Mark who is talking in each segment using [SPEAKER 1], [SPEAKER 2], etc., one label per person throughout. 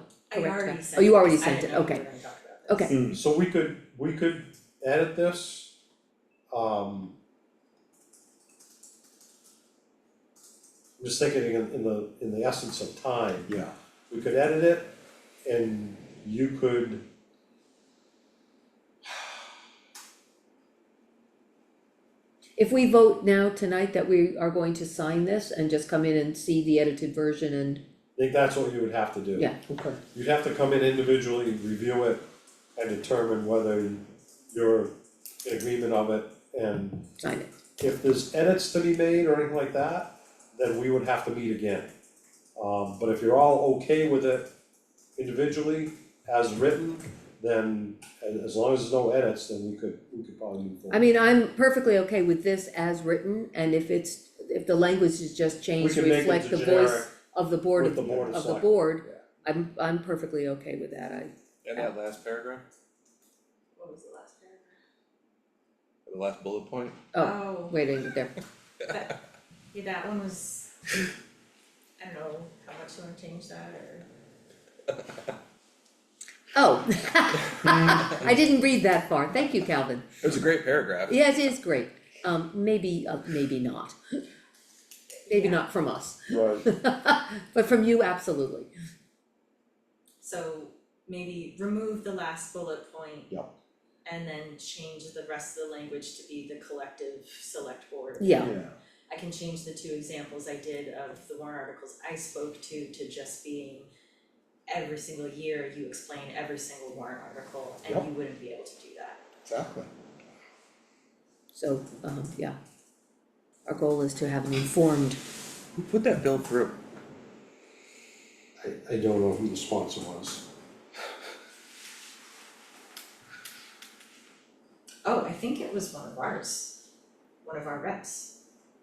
[SPEAKER 1] I
[SPEAKER 2] correct
[SPEAKER 1] already
[SPEAKER 2] back?
[SPEAKER 1] sent
[SPEAKER 2] Oh, you
[SPEAKER 1] this.
[SPEAKER 2] already
[SPEAKER 1] I
[SPEAKER 2] sent it,
[SPEAKER 1] didn't know we
[SPEAKER 2] okay.
[SPEAKER 1] were gonna talk about this.
[SPEAKER 2] Okay,
[SPEAKER 3] Hmm, So we could, we could edit this, um. I'm Just thinking in in the, in the essence of time,
[SPEAKER 4] Yeah,
[SPEAKER 3] we could edit it and you could.
[SPEAKER 2] if we vote now tonight that we are going to sign this and just come in and see the edited version and,
[SPEAKER 3] I think that's what you would have to do.
[SPEAKER 2] yeah,
[SPEAKER 4] okay,
[SPEAKER 3] You'd have to come in individually, review it, and determine whether you're in agreement of it. And
[SPEAKER 2] sign it.
[SPEAKER 3] if there's edits to be made or anything like that, then we would have to meet again. Um, but if you're all okay with it individually, as written, then a- as long as there's no edits, then we could, we could probably move
[SPEAKER 2] I
[SPEAKER 3] forward.
[SPEAKER 2] mean, I'm perfectly okay with this as written, and if it's, if the language is just changed to
[SPEAKER 3] can make it
[SPEAKER 2] reflect the
[SPEAKER 3] generic
[SPEAKER 2] voice of the board,
[SPEAKER 3] With
[SPEAKER 2] of
[SPEAKER 3] the board of
[SPEAKER 2] of the
[SPEAKER 3] select.
[SPEAKER 2] board,
[SPEAKER 3] yeah.
[SPEAKER 2] I'm, I'm perfectly okay with that, I,
[SPEAKER 5] And that last paragraph,
[SPEAKER 1] What was the last paragraph?
[SPEAKER 5] or the last bullet point,
[SPEAKER 2] oh,
[SPEAKER 1] Oh.
[SPEAKER 2] waiting, there,
[SPEAKER 1] Yeah, that one was, I don't know, how much you wanna change that or,
[SPEAKER 2] oh. I didn't read that far, thank you, Calvin.
[SPEAKER 5] it was a great paragraph.
[SPEAKER 2] Yes, it is great, um, maybe, uh, maybe not. Maybe
[SPEAKER 1] Yeah.
[SPEAKER 2] not from us,
[SPEAKER 3] Right,
[SPEAKER 2] but from you, absolutely.
[SPEAKER 1] so maybe remove the last bullet point.
[SPEAKER 3] Yeah.
[SPEAKER 1] And then change the rest of the language to be the collective select board.
[SPEAKER 2] Yeah,
[SPEAKER 4] yeah,
[SPEAKER 1] I can change the two examples I did of the warrant articles I spoke to to just being every single year, you explain every single warrant article and
[SPEAKER 3] Yep.
[SPEAKER 1] you wouldn't be able to do that.
[SPEAKER 4] exactly.
[SPEAKER 2] so, um, yeah. Our goal is to have an informed,
[SPEAKER 5] Who put that bill through?
[SPEAKER 3] I, I don't know who the sponsor was.
[SPEAKER 1] Oh, I think it was one of ours, one of our reps,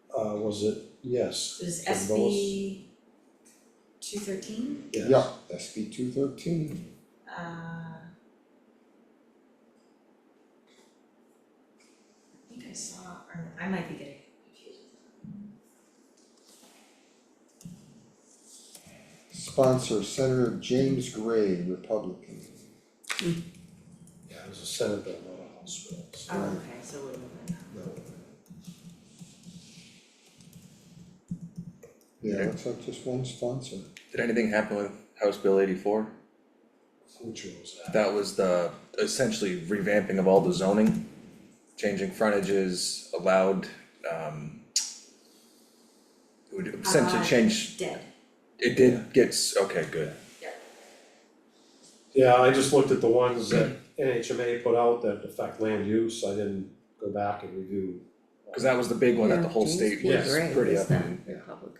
[SPEAKER 3] Uh, was it, yes,
[SPEAKER 1] it was
[SPEAKER 3] From
[SPEAKER 1] SB two thirteen,
[SPEAKER 3] yes.
[SPEAKER 4] Yeah, SB two thirteen,
[SPEAKER 1] uh. I think I saw, or I might be getting confused.
[SPEAKER 4] sponsor Senator James Gray, Republican.
[SPEAKER 3] Yeah, it was a Senate bill, not a House bill, so.
[SPEAKER 1] Oh, okay, so we're moving now.
[SPEAKER 4] Yeah, looks like just one sponsor.
[SPEAKER 5] Did anything happen with House Bill eighty-four?
[SPEAKER 3] Which one was that?
[SPEAKER 5] That was the essentially revamping of all the zoning, changing frontages allowed, um. It would essentially
[SPEAKER 1] Uh,
[SPEAKER 5] change,
[SPEAKER 1] Dead,
[SPEAKER 5] it did get, s- okay, good,
[SPEAKER 3] Yeah, I just looked at the ones that NHMA put out that affect land use, I didn't go back and review.
[SPEAKER 5] cause that was the big one that the
[SPEAKER 2] Yeah,
[SPEAKER 5] whole
[SPEAKER 2] James
[SPEAKER 5] state
[SPEAKER 2] P.
[SPEAKER 5] was
[SPEAKER 2] Gray
[SPEAKER 5] pretty
[SPEAKER 2] was
[SPEAKER 5] up
[SPEAKER 2] that.
[SPEAKER 5] in, yeah.
[SPEAKER 2] public.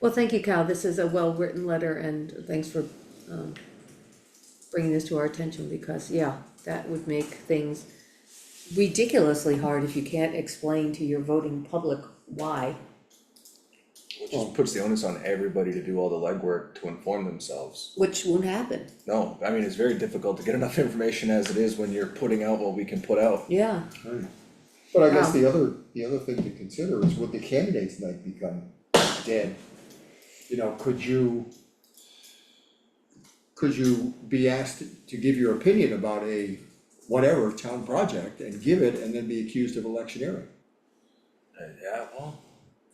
[SPEAKER 2] Well, thank you, Cal, this is a well-written letter, and thanks for, um, bringing this to our attention, because, yeah, that would make things ridiculously hard if you can't explain to your voting public why.
[SPEAKER 5] Which just puts the onus on everybody to do all the legwork to inform themselves.
[SPEAKER 2] Which won't happen,
[SPEAKER 5] No, I mean, it's very difficult to get enough information as it is when you're putting out what we can put out.
[SPEAKER 2] yeah,
[SPEAKER 4] But I guess
[SPEAKER 2] Wow.
[SPEAKER 4] the other, the other thing to consider is would the candidates night become dead? You know, could you? Could you be asked to give your opinion about a whatever town project and give it and then be accused of electioneering?
[SPEAKER 5] Uh, yeah, well,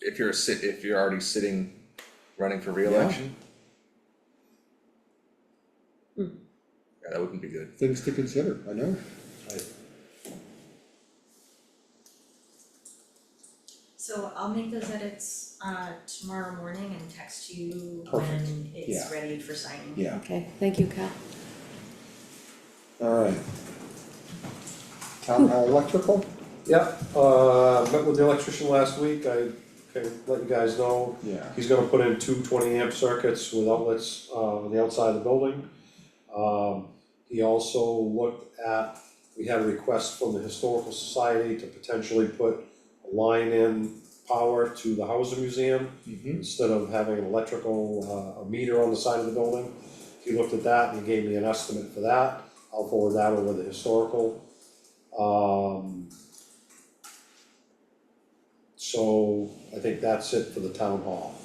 [SPEAKER 5] if you're a sit, if you're already sitting, running for reelection. Yeah, that wouldn't be good.
[SPEAKER 4] Things to consider, I know.
[SPEAKER 1] So I'll make those edits uh tomorrow morning and text you
[SPEAKER 4] Perfect.
[SPEAKER 1] when it's
[SPEAKER 4] Yeah.
[SPEAKER 1] ready for signing.
[SPEAKER 4] Yeah,
[SPEAKER 2] okay, thank you, Cal.
[SPEAKER 4] alright. Town hall electrical?
[SPEAKER 3] Yep, uh, met with the electrician last week, I can let you guys know,
[SPEAKER 4] Yeah.
[SPEAKER 3] he's gonna put in two 20 amp circuits with outlets, uh, on the outside of the building. Um, he also looked at, we had a request from the Historical Society to potentially put a line in power to the Hauser Museum.
[SPEAKER 4] Mm-hmm.
[SPEAKER 3] instead of having an electrical, uh, a meter on the side of the building. He looked at that and he gave me an estimate for that, I'll forward that over the historical. Um. So I think that's it for the town hall.